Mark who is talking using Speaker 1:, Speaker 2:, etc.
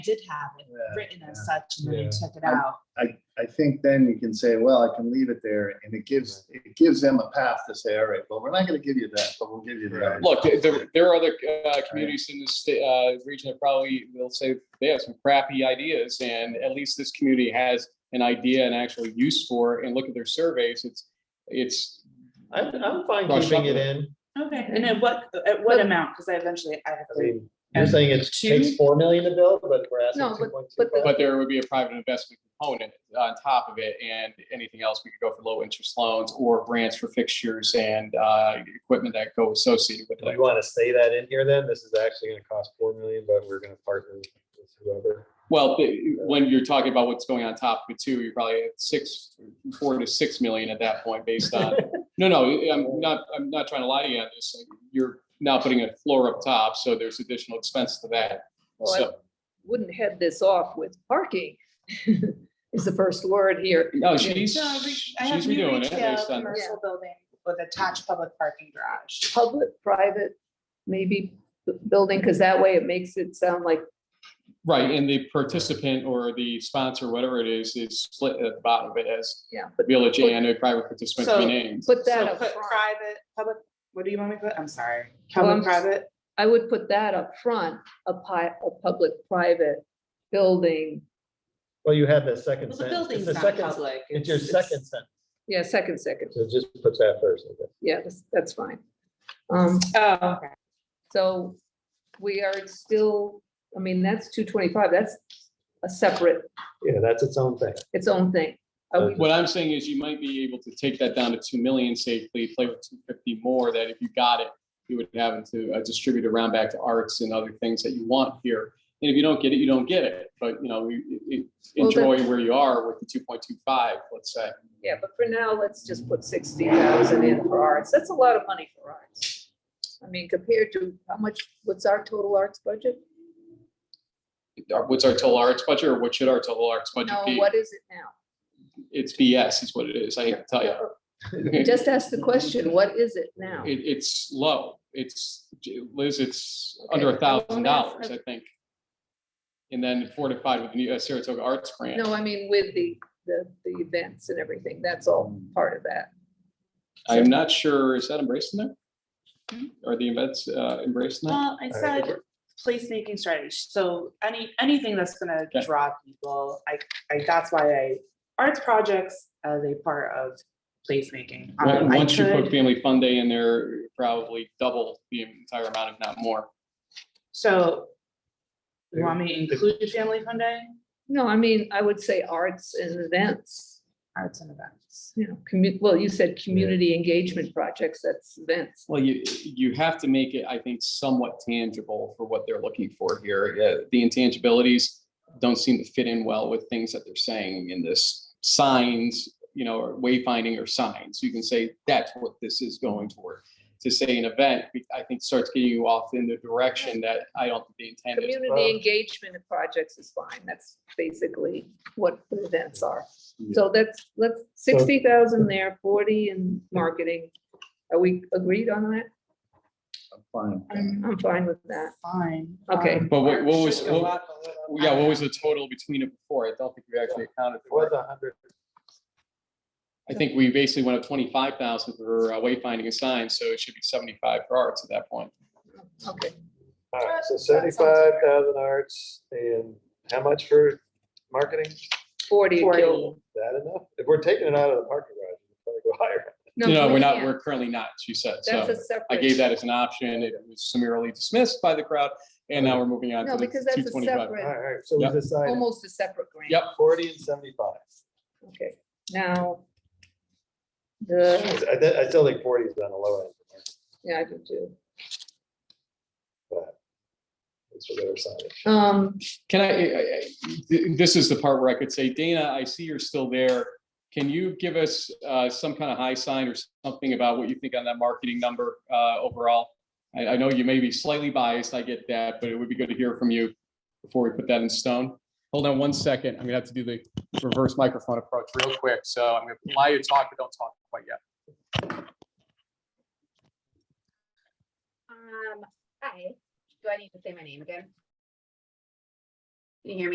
Speaker 1: did have it
Speaker 2: Yeah,
Speaker 1: written as
Speaker 3: yeah,
Speaker 1: such, and then they
Speaker 3: yeah.
Speaker 1: took it out.
Speaker 2: I, I think then you can say, well, I can leave it there, and it gives, it gives them a path to say, all right, well, we're not gonna give you that, but we'll give you the. other."
Speaker 4: Look, there, there are other uh, communities in this sta- uh, region that probably will say they have some crappy ideas, and at least this community has an idea and actual use for it. And look at their surveys; it's it's
Speaker 3: I'm, I'm fine
Speaker 4: Well,
Speaker 3: keeping
Speaker 4: shut
Speaker 3: it in.
Speaker 1: Okay, and at what, at what amount? Because I eventually, I have
Speaker 3: I
Speaker 1: to.
Speaker 3: mean, you're saying it
Speaker 1: Two?
Speaker 3: takes four million to build, but we're asking
Speaker 5: No,
Speaker 3: two point two
Speaker 5: but the-
Speaker 3: five.
Speaker 4: but there would be a private investment component on top of it, and anything else we could go for low interest loans or grants for fixtures and uh, equipment that go associated with
Speaker 3: Do we
Speaker 4: it.
Speaker 3: want to say that in here then? This is actually gonna cost four million, but we're gonna partner with whoever.
Speaker 4: Well, the- when you're talking about what's going on top of it too, you're probably at six, four to six million at that point based on No, no, I'm not, I'm not trying to lie to you on this. You're now putting a floor up top, so there's additional expense to that.
Speaker 5: Well, I
Speaker 4: So,
Speaker 5: wouldn't head this off with parking is the first word here.
Speaker 4: no, she's,
Speaker 1: No, I re- I have
Speaker 4: she's
Speaker 1: new
Speaker 4: redoing it
Speaker 1: retail,
Speaker 4: based on,
Speaker 1: Commercial building with attached public parking garage.
Speaker 5: Public, private, maybe b- building, because that way it makes it sound like,
Speaker 4: right, and the participant or the sponsor, whatever it is, is split at the bottom of it as
Speaker 5: yeah, but
Speaker 4: village and a private participant to
Speaker 1: So-
Speaker 4: be named.
Speaker 5: put that
Speaker 1: So
Speaker 5: up
Speaker 1: put
Speaker 5: front.
Speaker 1: private, public, what do you want me to put? I'm sorry.
Speaker 5: Well,
Speaker 1: Public,
Speaker 5: I'm just-
Speaker 1: private,
Speaker 5: I would put that up front, a pi, a public, private building.
Speaker 3: Well, you had the second
Speaker 1: well, the
Speaker 3: sentence. It's
Speaker 1: building's
Speaker 3: the
Speaker 1: not
Speaker 3: second,
Speaker 1: public.
Speaker 3: it's your second sentence.
Speaker 5: Yeah, second, second.
Speaker 3: So just put that first. I guess.
Speaker 5: Yeah, that's, that's fine. Um,
Speaker 1: Oh, okay.
Speaker 5: so we are still, I mean, that's two twenty-five. That's a separate,
Speaker 3: Yeah, that's its own thing.
Speaker 5: its own thing. Are we
Speaker 4: What I'm saying is you might be able to take that down to two million safely, play with two fifty more, that if you got it, you would have it to uh, distribute around back to arts and other things that you want here. And if you don't get it, you don't get it, but you know, we, we-
Speaker 5: Well, the-
Speaker 4: enjoy where you are with the two point two five, let's say.
Speaker 5: Yeah, but for now, let's just put sixty thousand in for arts. That's a lot of money for arts. I mean, compared to how much, what's our total arts budget?
Speaker 4: Our- What's our total arts budget or what should our total arts budget
Speaker 5: No,
Speaker 4: be?
Speaker 5: what is it now?
Speaker 4: It's BS is what it is, I hate to tell you. It,
Speaker 5: Just ask the question, what is it now?
Speaker 4: it's low, it's, Liz, it's
Speaker 5: Okay,
Speaker 4: under a
Speaker 5: I won't
Speaker 4: thousand
Speaker 5: ask.
Speaker 4: dollars, I think. And then fortified with the new, uh, Saratoga Arts Grant.
Speaker 5: No, I mean, with the, the, the events and everything, that's all part of that.
Speaker 4: I'm not sure, is that embraced in
Speaker 1: Hmm?
Speaker 4: there? Are the events uh, embraced in that?
Speaker 1: Well, I said placemaking strategy. So any, anything that's gonna
Speaker 4: Okay.
Speaker 1: draw people, I, I, that's why I, arts projects as a part of placemaking.
Speaker 4: Well,
Speaker 1: Um, I
Speaker 4: Once you
Speaker 1: could-
Speaker 4: put Family Fun Day in there, probably double the entire amount, if not more.
Speaker 1: So you want me to include family fun day?
Speaker 5: No, I mean, I would say arts and events,
Speaker 1: Arts and events.
Speaker 5: you know, commu, well, you said community engagement projects, that's events.
Speaker 4: Well, you, you have to make it, I think, somewhat tangible for what they're looking for here. Uh, The intangibilities don't seem to fit in well with things that they're saying in this signs, you know, or wayfinding or signs. You can say that's what this is going toward. To say an event, I think starts getting you off in the direction that I don't think they intended.
Speaker 3: well.
Speaker 5: Community engagement and projects is fine. That's basically what the events are. So that's, let's, sixty thousand there, forty in marketing. Are we agreed on that?
Speaker 2: I'm fine.
Speaker 5: I'm, I'm fine with that.
Speaker 1: Fine.
Speaker 5: Okay.
Speaker 1: Um,
Speaker 4: But what- what was-
Speaker 1: should go
Speaker 4: what-
Speaker 1: up a little.
Speaker 4: Yeah, what was the total between it before? I don't think we actually accounted
Speaker 3: It
Speaker 4: for
Speaker 3: was
Speaker 4: it.
Speaker 3: a hundred.
Speaker 4: I think we basically went up twenty-five thousand for uh, wayfinding and signs, so it should be seventy-five for arts at that point.
Speaker 5: Okay,
Speaker 3: All right, uh, so
Speaker 1: That sounds fair.
Speaker 3: seventy-five thousand arts and how much for marketing? Is
Speaker 5: forty. a
Speaker 1: 40.
Speaker 5: kill.
Speaker 3: that enough? If we're taking it out of the parking garage, it's gonna go higher.
Speaker 4: No, we're
Speaker 5: we
Speaker 4: not,
Speaker 5: can't.
Speaker 4: we're currently not, she said.
Speaker 5: That's
Speaker 4: So
Speaker 5: a separate.
Speaker 4: I gave that as an option. It was summarily dismissed by the crowd, and now we're moving on
Speaker 5: No,
Speaker 4: to
Speaker 5: because
Speaker 4: the
Speaker 5: that's
Speaker 4: two
Speaker 5: a
Speaker 4: twenty-five.
Speaker 3: All
Speaker 5: separate,
Speaker 3: right, all right, so we
Speaker 4: Yep.
Speaker 3: decided
Speaker 5: almost a separate grant.
Speaker 4: Yep.
Speaker 3: forty and seventy-five.
Speaker 5: Okay, now. The,
Speaker 3: I, thi- I still think forty is on the low end.
Speaker 5: yeah, I do too.
Speaker 3: but It's what they were signing.
Speaker 5: Um,
Speaker 4: Can I, I- I- th- this is the part where I could say, Dana, I see you're still there. Can you give us uh, some kind of high sign or something about what you think on that marketing number uh, overall? I, I know you may be slightly biased, I get that, but it would be good to hear from you before we put that in stone. Hold on one second, I'm gonna have to do the reverse microphone approach real quick, so I'm gonna allow you to talk, but don't talk quite yet.
Speaker 6: Um, hi, do I need to say my name again? Can you hear me?